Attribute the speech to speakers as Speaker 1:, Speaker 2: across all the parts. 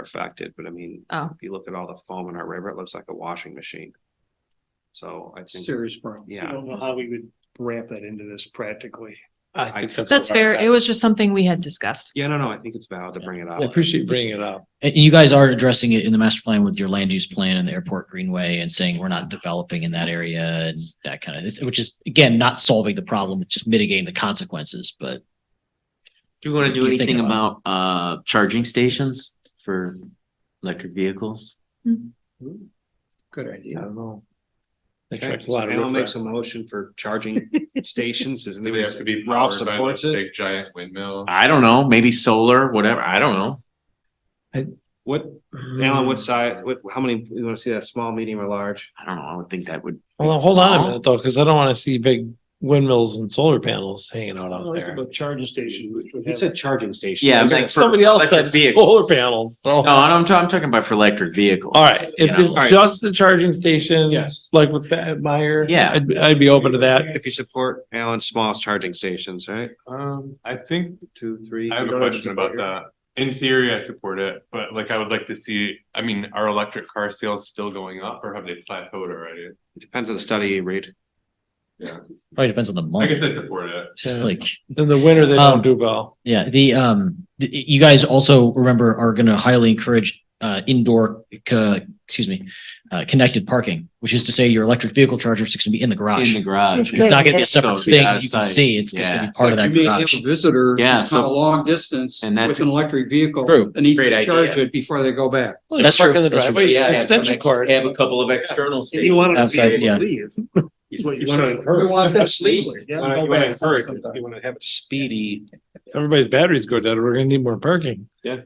Speaker 1: affected, but I mean,
Speaker 2: Oh.
Speaker 1: if you look at all the foam in our river, it looks like a washing machine. So I think,
Speaker 3: serious problem.
Speaker 4: I
Speaker 1: yeah,
Speaker 4: don't know how we would wrap that into this practically.
Speaker 3: I think that's.
Speaker 2: That's fair. It was just something we had discussed.
Speaker 1: yeah, no, no, I think it's valid to bring it
Speaker 3: I
Speaker 1: up.
Speaker 3: appreciate you bringing it up.
Speaker 5: And you guys are addressing it in the master plan with your land use plan and the airport greenway and saying we're not developing in that area and that kind of, it's- which is, again, not solving the problem, it's just mitigating the consequences, but
Speaker 6: Do you want to do
Speaker 5: You think
Speaker 6: anything
Speaker 5: about
Speaker 6: about uh charging stations for electric vehicles?
Speaker 3: Good idea.
Speaker 6: I don't know.
Speaker 1: Okay, so Alan makes a motion for charging stations, isn't
Speaker 7: Maybe They have to
Speaker 1: it?
Speaker 7: be
Speaker 1: Ralph
Speaker 7: powered by
Speaker 1: supports
Speaker 7: this
Speaker 1: it.
Speaker 7: big giant windmill.
Speaker 6: I don't know, maybe solar, whatever. I don't know.
Speaker 1: What,
Speaker 3: Mm-hmm.
Speaker 1: Alan, what size, what, how many, you wanna see that, small, medium or large?
Speaker 6: I don't know. I would think that would.
Speaker 3: Well, hold on a
Speaker 6: Small.
Speaker 3: minute though, because I don't want to see big windmills and solar panels hanging out out there.
Speaker 4: A charging station, which would
Speaker 1: You
Speaker 4: have,
Speaker 1: said charging station.
Speaker 6: Yeah, I'm
Speaker 1: Okay.
Speaker 6: saying for
Speaker 3: Somebody else
Speaker 6: electric
Speaker 3: said
Speaker 6: vehicles.
Speaker 3: solar panels. so-
Speaker 6: No, I'm, ta- I'm talking about for electric vehicles.
Speaker 3: All right,
Speaker 6: You
Speaker 3: if
Speaker 6: know?
Speaker 3: it's just the charging station.
Speaker 1: Yes.
Speaker 3: Like with Pat Meyer.
Speaker 6: Yeah.
Speaker 3: I'd, I'd be open to that.
Speaker 1: If you support Alan's small charging stations, right?
Speaker 7: Um, I think,
Speaker 1: Two, three.
Speaker 7: I have
Speaker 1: you
Speaker 7: a
Speaker 1: don't
Speaker 7: question
Speaker 1: to
Speaker 7: about
Speaker 1: support
Speaker 7: that. In theory, I support it, but like I would like to see, I mean, are electric car sales still going up or have they plateaued already?
Speaker 1: it. Depends on the study you read.
Speaker 7: Yeah,
Speaker 5: probably depends on the
Speaker 7: I
Speaker 5: month.
Speaker 7: guess I support it.
Speaker 5: It's Just
Speaker 3: Yeah.
Speaker 5: like,
Speaker 3: In the winter, they don't
Speaker 5: Um,
Speaker 3: do well.
Speaker 5: yeah, the, um, th- you guys also remember are going to highly encourage, uh, indoor, uh, excuse me, uh, connected parking, which is to say your electric vehicle charger is just going to be in the
Speaker 6: In
Speaker 5: garage.
Speaker 6: the garage.
Speaker 5: It's not going to be a separate
Speaker 6: So it'd be
Speaker 5: thing
Speaker 6: out
Speaker 5: that
Speaker 6: of
Speaker 5: you can
Speaker 6: sight.
Speaker 5: see. It's just going to
Speaker 6: Yeah.
Speaker 5: be part of that
Speaker 3: Like, you may
Speaker 5: garage.
Speaker 3: have Visitor.
Speaker 6: Yeah,
Speaker 3: It's not
Speaker 6: so
Speaker 3: a long distance
Speaker 6: And that's-
Speaker 3: with an electric vehicle.
Speaker 5: True.
Speaker 3: It needs
Speaker 6: Great
Speaker 3: to
Speaker 6: idea.
Speaker 3: charge it before they go back.
Speaker 5: Well, That's
Speaker 3: Park
Speaker 5: true.
Speaker 3: in the
Speaker 5: That's true.
Speaker 3: driveway,
Speaker 6: Yeah, have some
Speaker 3: extension
Speaker 6: ex-
Speaker 3: cord.
Speaker 6: Have a couple of external stations.
Speaker 5: Outside, yeah.
Speaker 4: is what you
Speaker 1: You wanna
Speaker 4: said.
Speaker 1: encourage.
Speaker 3: We want them to leave.
Speaker 4: Yeah.
Speaker 1: You wanna- you wanna encourage it. You wanna have it speedy,
Speaker 3: Everybody's batteries go down. We're gonna need more parking.
Speaker 1: a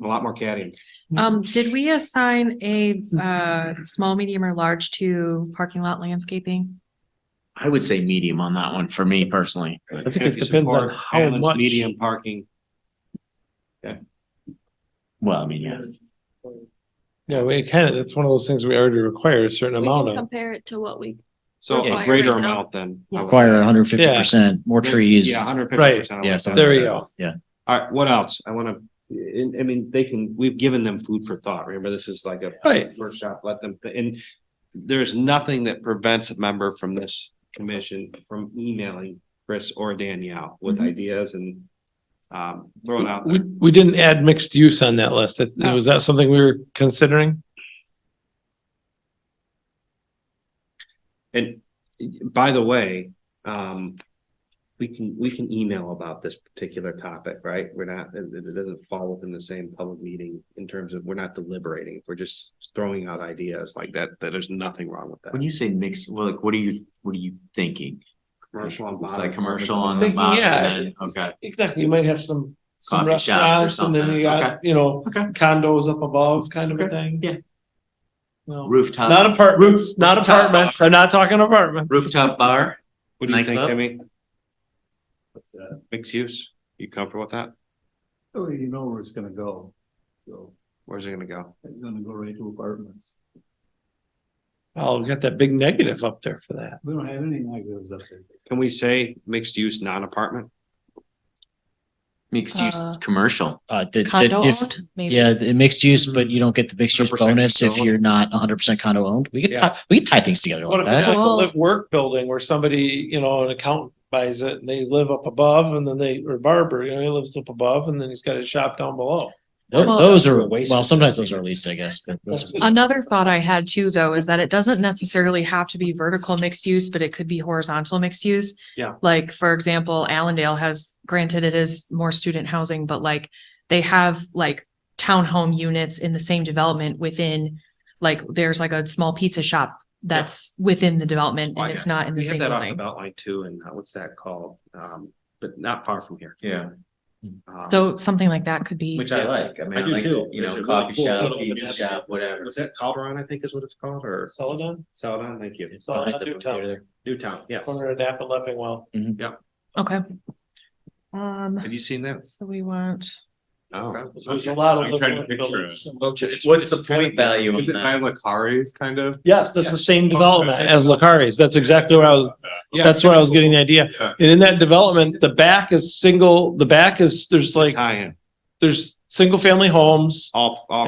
Speaker 1: lot more caddying.
Speaker 2: Um, did we assign a, uh, small, medium or large to parking lot landscaping?
Speaker 6: I would say medium on that one for me personally.
Speaker 1: I
Speaker 3: think it depends on how much-
Speaker 1: Medium parking,
Speaker 6: Well, I mean, yeah.
Speaker 3: Yeah, we kind of, that's one of those things we already require a certain
Speaker 8: We
Speaker 3: amount
Speaker 8: can
Speaker 3: of.
Speaker 8: Compare it to what we,
Speaker 3: Oh,
Speaker 1: so a
Speaker 8: Yeah.
Speaker 1: greater amount than. I would
Speaker 5: Require
Speaker 1: say.
Speaker 5: hundred fifty percent, more trees.
Speaker 1: Yeah, hundred fifty
Speaker 3: Right.
Speaker 1: percent.
Speaker 5: Yeah, something
Speaker 3: There
Speaker 5: like
Speaker 3: you
Speaker 5: that.
Speaker 3: go.
Speaker 5: Yeah.
Speaker 1: All right, what else? I wanna, I, I mean, they can, we've given them food for thought. Remember, this is like a
Speaker 3: Right.
Speaker 1: workshop, let them, and there's nothing that prevents a member from this commission from emailing Chris or Danielle with
Speaker 2: Mhm.
Speaker 1: ideas and um, throwing out
Speaker 3: Mm-hmm. We,
Speaker 1: there.
Speaker 3: we didn't add mixed use on that list. That-
Speaker 2: No.
Speaker 3: Was that something we were considering?
Speaker 1: And by the way, um, we can, we can email about this particular topic, right? We're not, it, it doesn't fall within the same public meeting in terms of, we're not deliberating. We're just throwing out ideas like that, that there's nothing wrong with
Speaker 6: When
Speaker 1: that.
Speaker 6: you say mixed, well, like, what are you, what are you thinking? It's like commercial
Speaker 1: on.
Speaker 6: on the
Speaker 3: Thinking,
Speaker 6: bottom.
Speaker 3: yeah.
Speaker 6: and then- Okay.
Speaker 3: Exactly. You might have some. some
Speaker 6: Coffee shops or
Speaker 3: restaurants, And then
Speaker 6: something.
Speaker 3: you got, you know,
Speaker 6: Okay.
Speaker 3: condos up above kind of a thing.
Speaker 6: Yeah. uh,
Speaker 3: No.
Speaker 6: Rooftop.
Speaker 3: Not apartments, not
Speaker 6: rooftop bar.
Speaker 3: apartments. I'm not talking apartment.
Speaker 6: Rooftop bar.
Speaker 1: What do you think,
Speaker 6: Nightclub?
Speaker 1: I mean? Mixed use, you comfortable with that?
Speaker 4: I already Oh, know where it's gonna go. So
Speaker 1: Where's it gonna go?
Speaker 4: it's gonna go right to apartments.
Speaker 3: Oh, we got that big negative up there for that.
Speaker 4: We don't have any negatives up there.
Speaker 1: Can we say mixed use, non-apartment?
Speaker 6: Mixed use,
Speaker 2: Uh,
Speaker 6: commercial.
Speaker 5: Uh, that, that
Speaker 2: Condo
Speaker 5: if,
Speaker 2: owned? Maybe.
Speaker 5: yeah, the mixed use, but you don't get the mixed use
Speaker 1: 100%
Speaker 5: bonus if
Speaker 1: condo.
Speaker 5: you're not hundred percent condo owned. We could,
Speaker 1: Yeah.
Speaker 5: tie- we could tie things together
Speaker 3: What
Speaker 5: like
Speaker 3: if it's
Speaker 5: that.
Speaker 3: like a
Speaker 2: Oh.
Speaker 3: live work building where somebody, you know, an accountant buys it and they live up above and then they, or barber, you know, he lives up above and then he's got his shop down below.
Speaker 5: Tho-
Speaker 2: Well-
Speaker 5: Those are,
Speaker 1: A waste
Speaker 5: well,
Speaker 1: of
Speaker 5: sometimes
Speaker 1: time.
Speaker 5: those are leased, I guess, but those are.
Speaker 2: Another thought I had too, though, is that it doesn't necessarily have to be vertical mixed use, but it could be horizontal mixed use.
Speaker 1: Yeah.
Speaker 2: Like, for example, Allendale has, granted it is more student housing, but like they have like townhome units in the same development within, like, there's like a small pizza shop that's within the development
Speaker 1: Oh, I
Speaker 2: and it's
Speaker 1: got
Speaker 2: not in the
Speaker 1: We
Speaker 2: same
Speaker 1: have that off the
Speaker 2: building.
Speaker 1: belt line too, and uh, what's that called? Um, but not far from here.
Speaker 6: Yeah.
Speaker 1: Um,
Speaker 2: So something like that could be,
Speaker 6: Which I like. I mean,
Speaker 1: I
Speaker 6: I
Speaker 1: do
Speaker 6: like,
Speaker 1: too.
Speaker 6: you
Speaker 1: There's
Speaker 6: know,
Speaker 1: a
Speaker 6: coffee
Speaker 1: really cool
Speaker 6: shop,
Speaker 1: little-
Speaker 6: pizza shop, whatever.
Speaker 1: Was that Calderon, I think is what it's called, or
Speaker 3: Celadon,
Speaker 1: Saladon? Thank you.
Speaker 5: behind
Speaker 3: Celadon
Speaker 5: the
Speaker 3: Newtown,
Speaker 5: theater.
Speaker 1: Newtown, yes.
Speaker 3: corner of Napa and Leffingwell.
Speaker 2: okay. Um,
Speaker 1: Have you seen that?
Speaker 2: so we want,
Speaker 7: No.
Speaker 3: There's a lot of.
Speaker 7: I'm
Speaker 3: live
Speaker 7: trying to
Speaker 3: work
Speaker 7: picture
Speaker 3: buildings.
Speaker 6: What's the point value on
Speaker 7: Is it
Speaker 6: that?
Speaker 7: by Lacari's kind of?
Speaker 3: Yes, that's the same development
Speaker 7: Okay.
Speaker 3: as Lacari's. That's exactly where I was, that's where I was getting the idea.
Speaker 7: Yeah.
Speaker 3: And in that development, the back is single, the back is, there's like,
Speaker 1: Tie in,
Speaker 3: there's single family homes.
Speaker 1: all, all